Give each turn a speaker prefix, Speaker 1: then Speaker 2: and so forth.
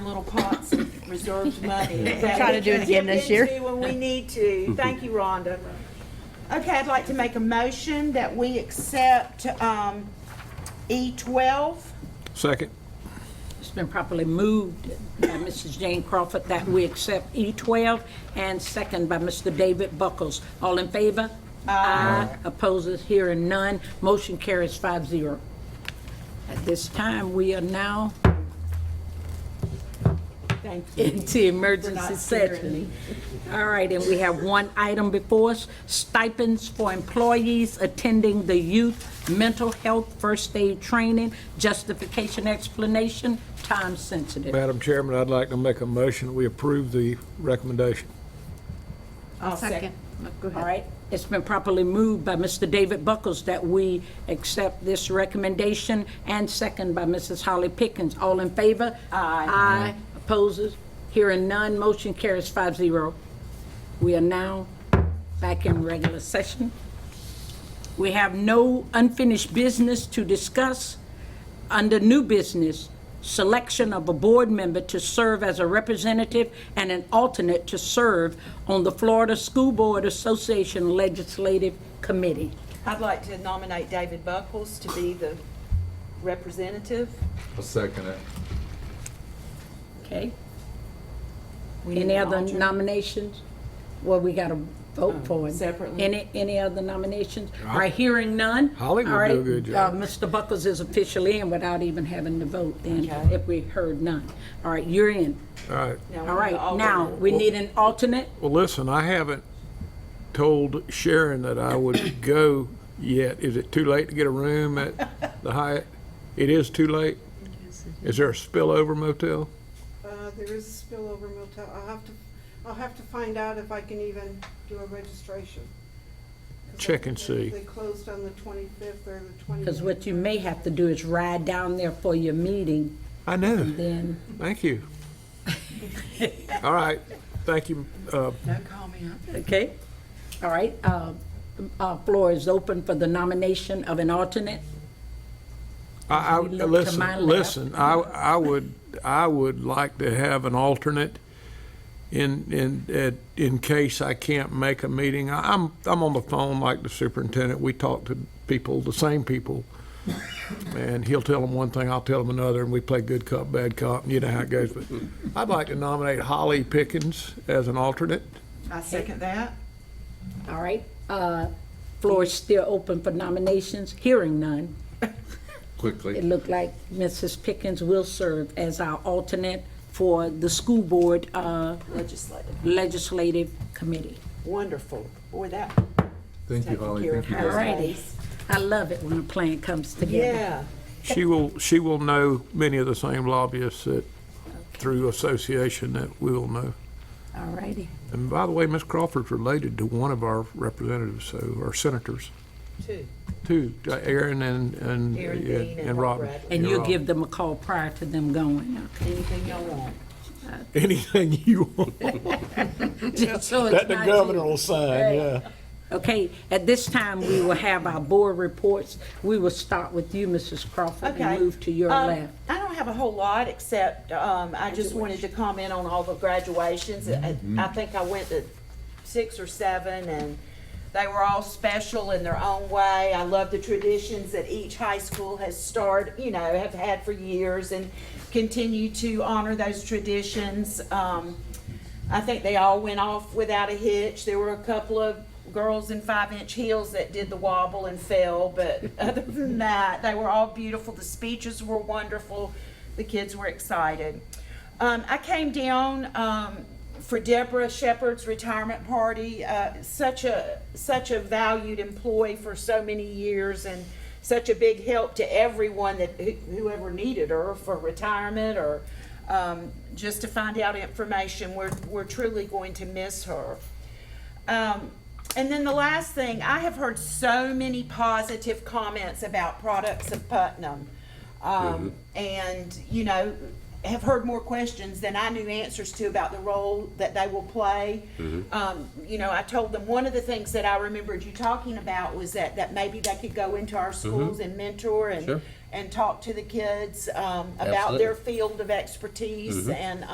Speaker 1: general pots of reserved money. that
Speaker 2: trying
Speaker 1: we
Speaker 2: to do it
Speaker 1: can
Speaker 2: again
Speaker 1: dip
Speaker 2: this year.
Speaker 1: into When we need
Speaker 3: Mm-hmm.
Speaker 1: to. Thank you, Rhonda. Okay, I'd like to make a motion that we accept um, E E12.
Speaker 4: Second.
Speaker 5: It's been properly moved by Mrs. Jane Crawford that we accept E12 and second by Mr. David Buckles. All in favor? Aye. Opposes, hearing none. Motion carries 5-0. At this time, we are now
Speaker 1: Thank you.
Speaker 5: into emergency
Speaker 1: not
Speaker 5: session. All right, and we have one item before us, stipends for employees attending the youth mental health first aid training, justification explanation, time sensitive.
Speaker 4: Madam Chairman, I'd like to make a motion that we approve the recommendation.
Speaker 1: I'll second.
Speaker 5: All right, it's been properly moved by Mr. David Buckles that we accept this recommendation, and second by Mrs. Holly Pickens. All in favor? Aye. Aye. Opposes? Hearing none, motion carries 5-0. We are now back in regular session. We have no unfinished business to discuss. Under new business, selection of a board member to serve as a representative and an alternate to serve on the Florida School Board Association Legislative Committee.
Speaker 1: I'd like to nominate David Buckles to be the representative.
Speaker 3: I'll second it.
Speaker 5: Okay? Any other nominations? Well, we got to vote for it.
Speaker 1: separately.
Speaker 5: Any, any other nominations? Are hearing none?
Speaker 4: Holly would
Speaker 5: All
Speaker 4: do a
Speaker 5: right,
Speaker 4: good job.
Speaker 5: uh, Mr. Buckles is officially in without even having to vote then, if we heard none. All right, you're in.
Speaker 4: All right.
Speaker 1: Now,
Speaker 5: All
Speaker 1: we're
Speaker 5: right,
Speaker 1: gonna alter-
Speaker 5: now, we need an alternate.
Speaker 4: Well, listen, I haven't told Sharon that I would go yet. Is it too late to get a room at the Hyatt? It is too late? Is there a spillover motel?
Speaker 6: Uh, there is a spillover motel. I'll have to, I'll have to find out if I can even do a registration. 'Cause I
Speaker 4: Check and
Speaker 6: think they-
Speaker 4: see.
Speaker 6: They closed on the twenty-fifth or the twenty.
Speaker 5: Because what you may have to do is ride down there for your meeting,
Speaker 4: I know.
Speaker 5: then,
Speaker 4: Thank you. All right. Thank you. Uh,
Speaker 5: okay? All right, uh, uh, floor is open for the nomination of an alternate.
Speaker 4: I, I,
Speaker 5: We look to
Speaker 4: listen,
Speaker 5: my left.
Speaker 4: listen, I, I would, I would like to have an alternate in, in, at- in case I can't make a meeting. I- I'm, I'm on the phone like the superintendent. We talk to people, the same people. And he'll tell them one thing, I'll tell them another, and we play good cop, bad cop, and you know how it goes. But I'd like to nominate Holly Pickens as an alternate.
Speaker 1: I second that.
Speaker 5: All right, uh, floor is still open for nominations, hearing none. It
Speaker 3: Quickly.
Speaker 5: looked like Mrs. Pickens will serve as our alternate for the school board uh,
Speaker 1: Legislative.
Speaker 5: legislative committee.
Speaker 1: Wonderful. Boy, that
Speaker 3: Thank you,
Speaker 1: taking
Speaker 3: Holly.
Speaker 1: care of
Speaker 3: Thank you.
Speaker 1: her.
Speaker 3: guys.
Speaker 5: Alrighty. I love it when a plan comes together.
Speaker 1: Yeah.
Speaker 4: She will, she will know many of the same lobbyists that, through association that we will know.
Speaker 5: All righty.
Speaker 4: And by the way, Ms. Crawford's related to one of our representatives, so, or senators,
Speaker 1: Two.
Speaker 4: too, uh, Aaron and, and.
Speaker 1: Aaron Dean and Rob
Speaker 4: Robin.
Speaker 1: Bradley.
Speaker 5: And
Speaker 4: You're
Speaker 5: you'll
Speaker 4: right.
Speaker 5: give them a call prior to them going, okay?
Speaker 1: Anything y'all want.
Speaker 4: Anything you want.
Speaker 5: Just so it's
Speaker 4: That the
Speaker 5: not
Speaker 4: governor
Speaker 5: you.
Speaker 4: will sign, yeah.
Speaker 5: Okay, at this time, we will have our board reports. We will start with you, Mrs. Crawford,
Speaker 1: Okay.
Speaker 5: and move to your
Speaker 1: Um,
Speaker 5: left.
Speaker 1: I don't have a whole lot, except um, I just wanted to comment on all the graduations. I
Speaker 5: Mm-hmm.
Speaker 1: I think I went to six or seven, and they were all special in their own way. I love the traditions that each high school has started, you know, have had for years and continue to honor those traditions. Um, I think they all went off without a hitch. There were a couple of girls in five-inch heels that did the wobble and fell, but other than that, they were all beautiful. The speeches were wonderful. The kids were excited. Um, I came down, um, for Deborah Shepherd's retirement party, uh, such a, such a valued employee for so many years and such a big help to everyone that, who- whoever needed her for retirement or, um, just to find out information. We're, we're truly going to miss her. Um, and then the last thing, I have heard so many positive comments about products of Putnam.
Speaker 3: Mm-hmm.
Speaker 1: Um, and, you know, have heard more questions than I knew answers to about the role that they will play.
Speaker 3: Mm-hmm.
Speaker 1: Um, you know, I told them, one of the things that I remembered you talking about was that, that maybe they could go into our schools and mentor and,
Speaker 3: Mm-hmm. Sure.
Speaker 1: and talk to the kids, um, about
Speaker 3: Absolutely. Mm-hmm.
Speaker 1: their field of expertise and,